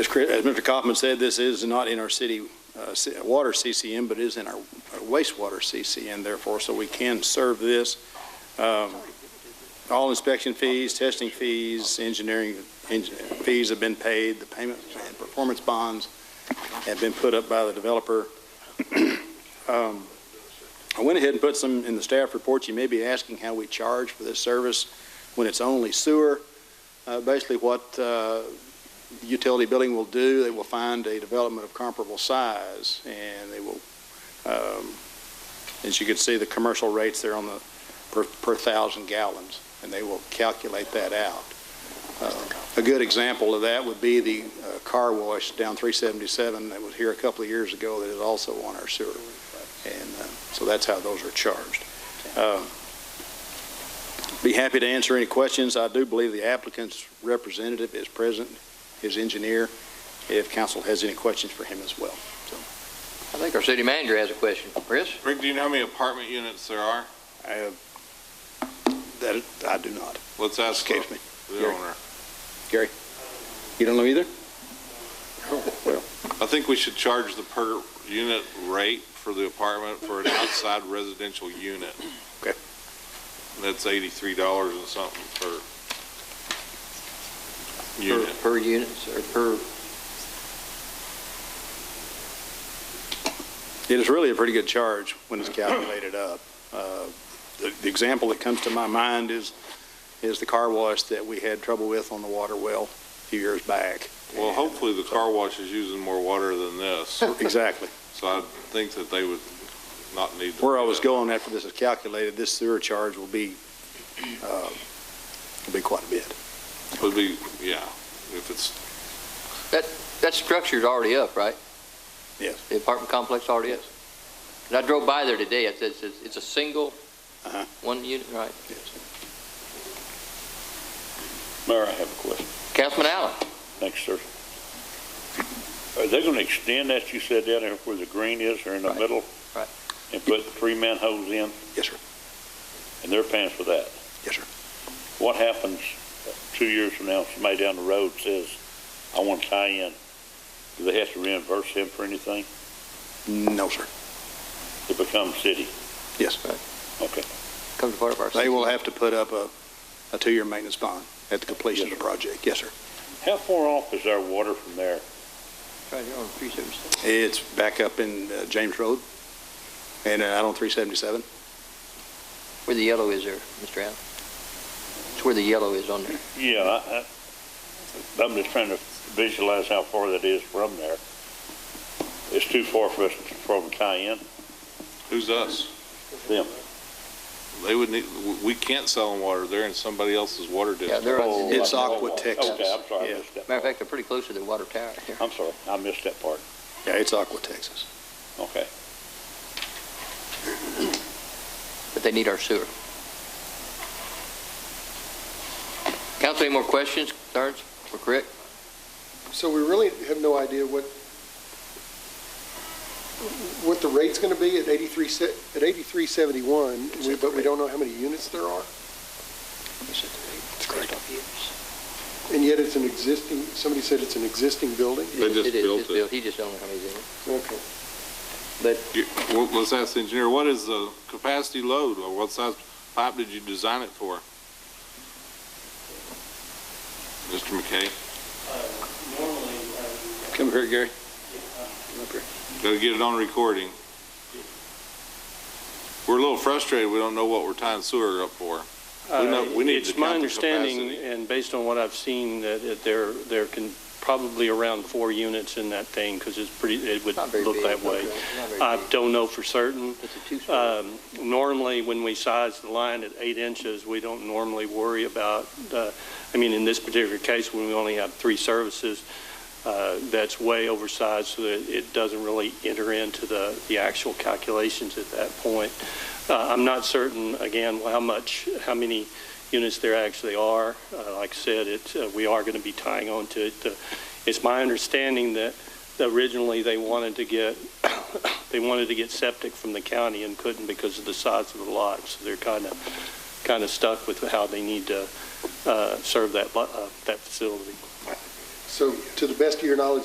As Chris- as Mr. Kaufman said, this is not in our city uh, ci- water CCM, but is in our uh, wastewater CCM therefore, so we can serve this. Um, All inspection fees, testing fees, engineering en- fees have been paid, the payment and performance bonds have been put up by the developer. Um, I went ahead and put some in the staff report. You may be asking how we charge for this service when it's only sewer. Uh, Basically, what uh, utility billing will do, they will find a development of comparable size, and they will, um, as you can see, the commercial rates there on the, per, per thousand gallons, and they will calculate that out. Uh, A good example of that would be the uh, car wash down 377 that was here a couple of years ago that is also on our sewer. And uh, so that's how those are charged. Uh, Be happy to answer any questions. I do believe the applicant's representative is present his engineer, if council has any questions for him as well. I think our city manager has a question. Chris? Rick, do you know how many apartment units there are? Uh, That, I do not. Let's ask the Escapes me. the Gary. owner. You don't know either? I think we should charge the per unit rate for the apartment for an outside residential unit. Okay. And That's eighty-three dollars and something per unit. Per unit, or per, It is really a pretty good charge when it's calculated up. Uh, The the example that comes to my mind is, is the car wash that we had trouble with on the water well a few years back. Well, hopefully the car wash is using more water than this, Exactly. so I think that they would not need. to- Where I was going after this is calculated, this sewer charge will be, uh, will be quite a bit. Would be, yeah, if it's, that structure's already up, right? Yes. The apartment complex already is? And I drove by there today, it's, it's, it's a single, Uh-huh. one unit, right? Mayor, I have a question. Councilman Allen? Thanks, sir. Are they going to extend that, you said, down there where the green is, or in the Right. middle? Right. And put three manholes in, Yes, sir. and they're paying for that? Yes, sir. What happens two years from now, if somebody down the road says, I want to tie in? Do they have to reimburse him for anything? No, sir. It becomes city. Yes. Okay. Come to part of our. They will have to put up a, a two-year maintenance bond at the completion of the project. Yes, sir. How far off is our water from there? Right here on three seventy seven. It's back up in uh, James Road and uh, out on 377. Where the yellow is there, Mr. Allen? It's where the yellow is on there. Yeah, I, I, I'm just trying to visualize how far that is from there. It's too far for us from tie in. who's us? Them. They would need, we can't sell them water, they're in somebody else's water district. Yeah, they're on. the- It's Matter Aqua, Texas. Okay, I'm sorry, Yeah. I missed that. of fact, they're pretty close to their water tower here. I'm sorry, I missed that part. Yeah, it's Aqua, Texas. Okay. but they need our sewer. Council, any more questions, concerns for Rick? So we really have no idea what, what the rate's going to be at 83, se- at 8371, we- but we don't know how many units there are, That's correct. and yet it's an existing, somebody said it's an existing building? They just It is, built it's it. He just don't know how many's in it. Okay. You- well, Let's ask the engineer, what is the capacity load, or what size pipe did you design it for? Mr. McKay, Normally, Come here, Gary. gotta get it on recording. We're a little frustrated, we don't know what we're tying sewer up for. We know- we need to Uh, It's count my the understanding, capacity. and based on what I've seen, that it- there, there can probably around four units in that thing, because it's pretty, it would Not very look big, that way. not very I big. don't know for certain. It's a two-story. Um, Normally, when we size the line at eight inches, we don't normally worry about, uh, I mean, in this particular case, when we only have three services, uh, that's way oversized, so that it doesn't really enter into the, the actual calculations at that point. Uh, I'm not certain, again, how much, how many units there actually are. Uh, Like I said, it, uh, we are going to be tying on to it. Uh, It's my understanding that originally they wanted to get they wanted to get septic from the county and couldn't because of the size of the lot, so they're kind of, kind of stuck with how they need to uh, serve that, lo- uh, that facility. So to the best of your knowledge,